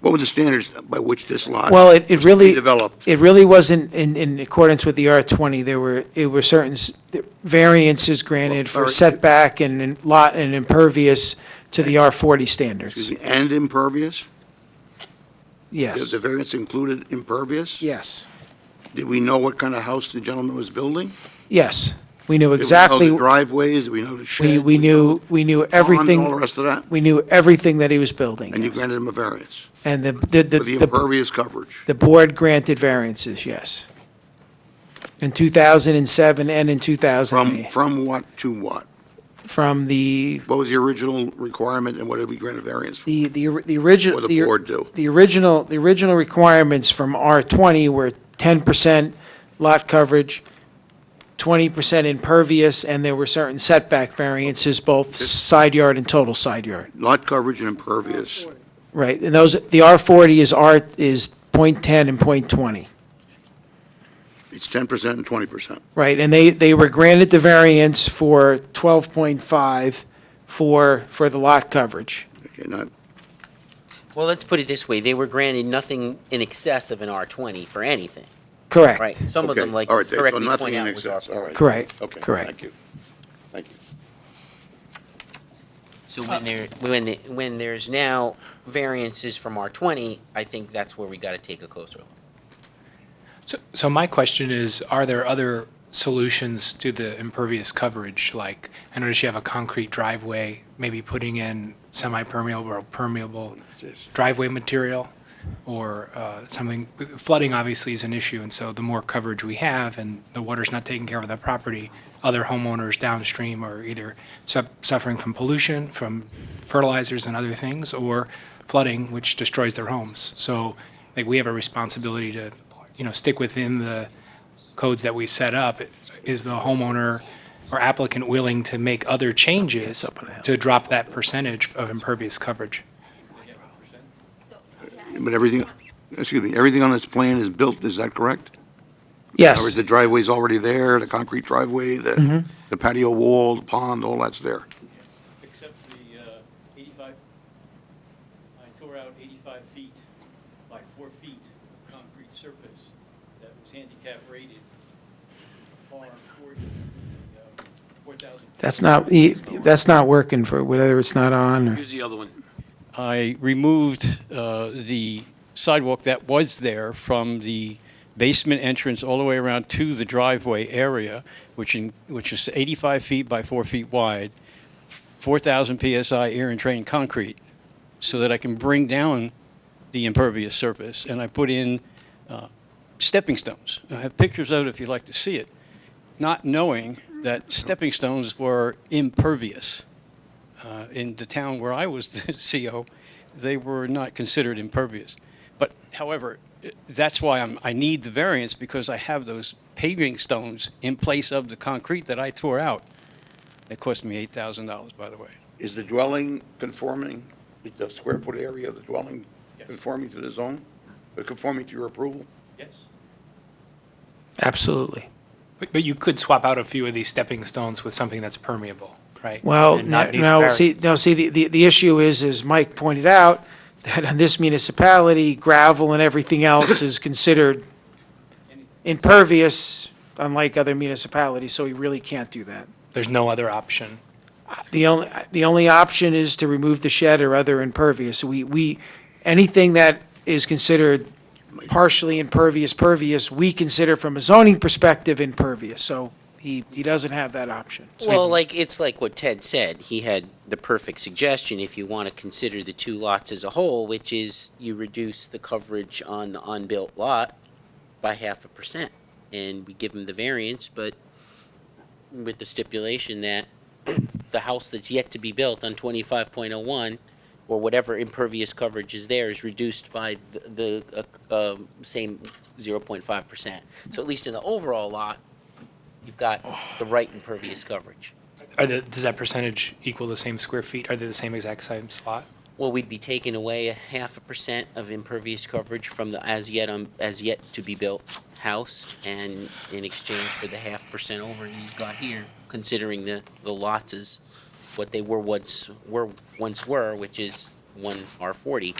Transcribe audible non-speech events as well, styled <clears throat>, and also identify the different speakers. Speaker 1: What were the standards by which this lot?
Speaker 2: Well, it, it really.
Speaker 1: developed.
Speaker 2: It really wasn't in, in accordance with the R twenty, there were, it were certain s- variances granted
Speaker 1: Well,
Speaker 2: for
Speaker 1: or-
Speaker 2: setback and in- lot and impervious to the R forty standards,
Speaker 1: And impervious?
Speaker 2: yes,
Speaker 1: The variance included impervious?
Speaker 2: yes,
Speaker 1: Did we know what kind of house the gentleman was building?
Speaker 2: yes. We knew
Speaker 1: Did we know
Speaker 2: exactly,
Speaker 1: the driveways, Did we know the shed?
Speaker 2: we, we knew, we
Speaker 1: And
Speaker 2: knew
Speaker 1: all the
Speaker 2: everything,
Speaker 1: rest of that?
Speaker 2: we knew everything that he was building.
Speaker 1: And you
Speaker 2: yes.
Speaker 1: granted him a variance
Speaker 2: And the, the, the-
Speaker 1: for the
Speaker 2: the,
Speaker 1: impervious coverage?
Speaker 2: the board granted variances, yes. In two thousand and seven and in two thousand and
Speaker 1: From,
Speaker 2: eight,
Speaker 1: from what to what?
Speaker 2: from the
Speaker 1: What was the original requirement and what did we grant a variance for?
Speaker 2: The, the, or- the original.
Speaker 1: Or the board do.
Speaker 2: The original, the original requirements from R twenty were ten percent lot coverage, twenty percent impervious, and there were certain setback variances, both side yard and total side yard,
Speaker 1: Lot coverage and impervious.
Speaker 2: right? And those, the R forty is R, is point ten and point twenty,
Speaker 1: It's 10% and 20%.
Speaker 2: right? And they, they were granted the variance for twelve point five for, for the lot coverage.
Speaker 1: Okay, not,
Speaker 3: Well, let's put it this way, they were granted nothing in excess of an R twenty for anything,
Speaker 2: Correct.
Speaker 3: right? Some of
Speaker 1: okay,
Speaker 3: them, like,
Speaker 1: all right, Dave, so
Speaker 3: correctly
Speaker 1: nothing
Speaker 3: point
Speaker 1: in
Speaker 3: out was R
Speaker 1: excess, all
Speaker 3: four.
Speaker 1: right.
Speaker 2: Correct,
Speaker 1: Okay,
Speaker 2: correct.
Speaker 1: Thank you. Thank you.
Speaker 3: So when there, when, the- when there's now variances from R twenty, I think that's where we gotta take a closer look.
Speaker 4: So, so my question is, are there other solutions to the impervious coverage? Like, I notice you have a concrete driveway, maybe putting in semi-permeable or permeable driveway material, or uh, something, flooding obviously is an issue, and so the more coverage we have, and the water's not taking care of the property, other homeowners downstream are either su- suffering from pollution, from fertilizers and other things, or flooding, which destroys their homes. So, like, we have a responsibility to, you know, stick within the codes that we set up. Is the homeowner or applicant willing to make other changes to drop that percentage of impervious coverage?
Speaker 1: But everything, excuse me, everything on this plan is built, is that correct?
Speaker 2: Yes.
Speaker 1: Or is the driveway's already there, the concrete driveway, the the patio wall, the pond, all that's there?
Speaker 5: except the uh, 85, I tore out 85 feet by four feet of concrete surface that was handicap rated, par 40, uh, 4,000.
Speaker 2: That's not, e, that's not working for, whether it's not on or.
Speaker 6: Use the other one.
Speaker 5: I removed uh, the sidewalk that was there from the basement entrance all the way around to the driveway area, which in, which is 85 feet by 4 feet wide, 4,000 psi air and train concrete, so that I can bring down the impervious surface. And I put in uh, stepping stones. I have pictures of it if you'd like to see it, not knowing that stepping stones were impervious uh, in the town where I was <laughs> the CO, they were not considered impervious. But however, i- that's why I'm, I need the variance because I have those paving stones in place of the concrete that I tore out. It cost me eight thousand dollars, by the way.
Speaker 1: Is the dwelling conforming, the square foot area of the dwelling
Speaker 5: Yes.
Speaker 1: conforming to the zone? Or Conforming to your approval?
Speaker 5: Yes.
Speaker 2: Absolutely.
Speaker 4: But, but you could swap out a few of these stepping stones with something that's permeable, right?
Speaker 2: Well,
Speaker 4: And not
Speaker 2: no-
Speaker 4: need
Speaker 2: no, see,
Speaker 4: variance.
Speaker 2: no, see, the, the, the issue is, as Mike pointed out, <laughs> that on this municipality, gravel and everything else
Speaker 4: <coughs>
Speaker 2: is considered impervious, unlike other municipalities, so we really can't do that.
Speaker 4: There's no other option.
Speaker 2: The only, the only option is to remove the shed or other impervious. We, we, anything that is considered partially impervious, pervious, we consider from a zoning perspective impervious, so he, he doesn't have that option.
Speaker 3: Well, like, it's like what Ted said, he had the perfect suggestion if you want to consider the two lots as a whole, which is you reduce the coverage on the unbuilt lot by half a percent. And we give him the variance, but with the stipulation that <clears throat> the house that's yet to be built on twenty-five point oh one, or whatever impervious coverage is there, is reduced by the, the, uh, um, same zero point five percent. So at least in the overall lot, you've got the right impervious coverage.
Speaker 4: Are the, does that percentage equal the same square feet? Are they the same exact same slot?
Speaker 3: Well, we'd be taking away a half a percent of impervious coverage from the as yet, um, as yet to be built house, and in exchange for the half percent over he's got here, considering the, the lots is what they were once, were, once were, which is one R forty,